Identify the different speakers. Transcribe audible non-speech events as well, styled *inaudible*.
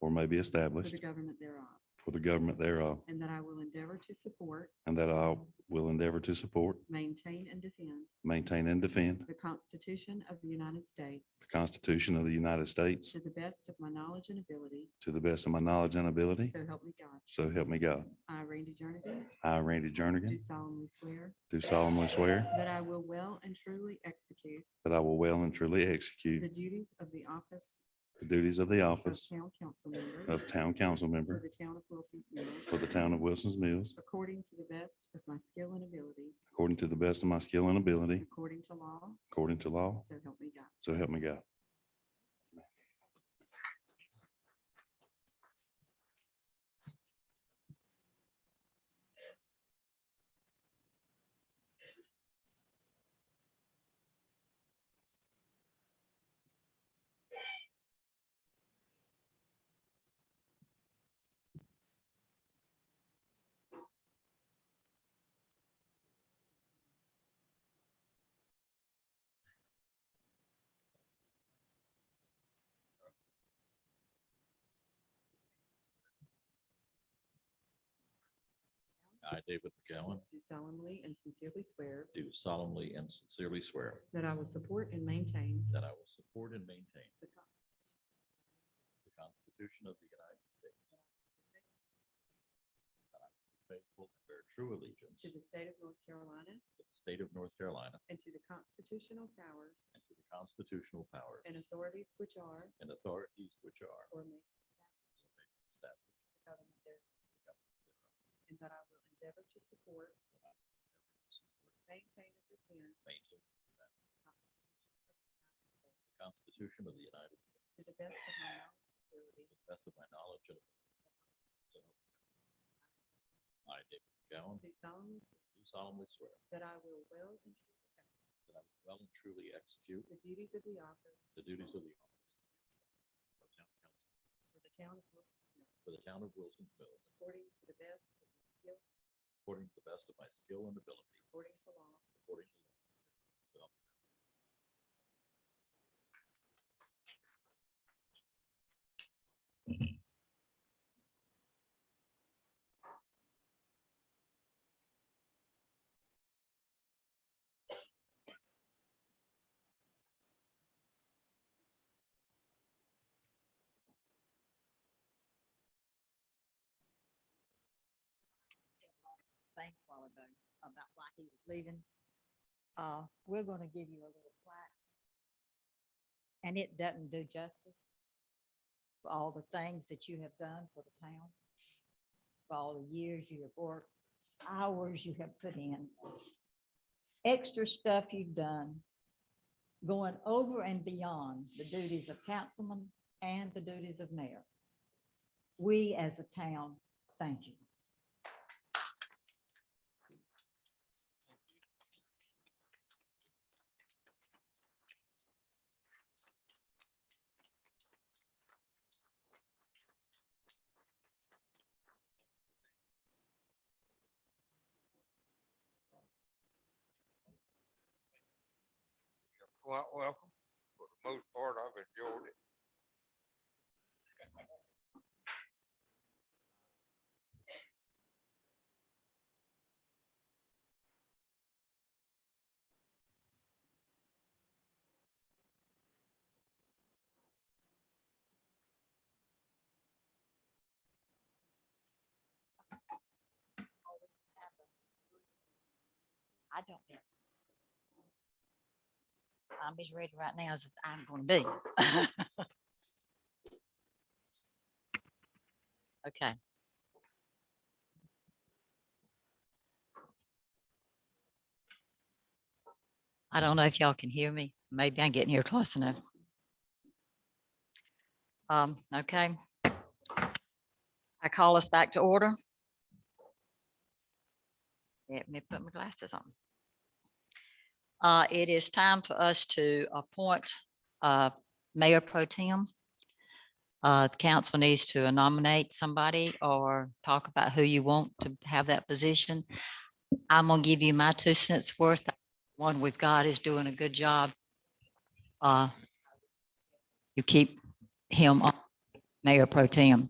Speaker 1: or may be
Speaker 2: for
Speaker 1: established
Speaker 2: the government thereof,
Speaker 1: for the government thereof,
Speaker 2: and that I will endeavor to support,
Speaker 1: and that I will endeavor to support,
Speaker 2: maintain, and defend
Speaker 1: maintain, and defend
Speaker 2: the Constitution of the United States
Speaker 1: the Constitution of the United States
Speaker 2: to the best of my knowledge and ability,
Speaker 1: to the best of my knowledge and ability.
Speaker 2: so help me God.
Speaker 1: So help me God.
Speaker 2: I, Randy Jernigan,
Speaker 1: I, Randy
Speaker 2: do
Speaker 1: Jernigan,
Speaker 2: solemnly swear
Speaker 1: do solemnly swear
Speaker 2: that I will well and truly execute
Speaker 1: that I will well and truly
Speaker 2: the
Speaker 1: execute
Speaker 2: duties of the office
Speaker 1: the duties of the
Speaker 2: of
Speaker 1: office
Speaker 2: town council member
Speaker 1: of Town Council
Speaker 2: for
Speaker 1: Member
Speaker 2: the town of Wilson's
Speaker 1: for
Speaker 2: Mills,
Speaker 1: the Town of Wilson's Mills,
Speaker 2: according to the best of my skill and ability,
Speaker 1: according to the best of my skill and ability,
Speaker 2: according to law,
Speaker 1: according to law.
Speaker 2: so help me God.
Speaker 1: So help me God.
Speaker 3: I, David McGowan,
Speaker 2: Do solemnly and sincerely swear
Speaker 3: do solemnly and sincerely swear
Speaker 2: that I will support and maintain
Speaker 3: that I will support and maintain
Speaker 2: the Constitution
Speaker 3: the Constitution of the United States. That I will be Faithful and bear true allegiance
Speaker 2: To the state of North Carolina
Speaker 3: to the state of North Carolina
Speaker 2: and to the constitutional powers
Speaker 3: and to the constitutional powers
Speaker 2: and authorities which are
Speaker 3: and authorities which are
Speaker 2: or may be established
Speaker 3: so may be established
Speaker 2: for the government thereof, and that I will endeavor to support, maintain, and defend
Speaker 3: and
Speaker 2: the
Speaker 3: maintain
Speaker 2: Constitution
Speaker 3: the Constitution of the United States
Speaker 2: of the United States to the best of my knowledge and ability.
Speaker 3: to the best of my knowledge and ability. So help me God. I, David McGowan,
Speaker 2: Do solemnly swear
Speaker 3: do solemnly swear
Speaker 2: that I will well and truly perform
Speaker 3: that I will well and truly execute
Speaker 2: the duties of the office
Speaker 3: The duties of the office. of town council
Speaker 2: for the town of Wilson's Mills,
Speaker 3: For the town of Wilson's Mills,
Speaker 2: according to the best of my skill,
Speaker 3: according to the best of my skill and ability,
Speaker 2: according to law,
Speaker 3: according to law. So help me God.
Speaker 4: thing a while ago about why he was leaving. Uh, we're gonna give you a little class. And it doesn't do justice for all the things that you have done for the town, for all the years you have worked, hours you have put in, extra stuff you've done, going over and beyond the duties of councilman and the duties of mayor. We, as a town, thank you.
Speaker 5: You're quite welcome. For the most part, I've enjoyed it.
Speaker 4: I don't know. I'm as ready right now as I'm gonna be. *laughs* Okay. I don't know if y'all can hear me. Maybe I'm getting here close enough. Um, okay. I call us back to order. Let me put my glasses on. Uh, it is time for us to appoint, uh, Mayor Pro Tem. Uh, the council needs to nominate somebody or talk about who you want to have that position. I'm gonna give you my two cents worth. One we've got is doing a good job. Uh, you keep him on. Mayor Pro Tem.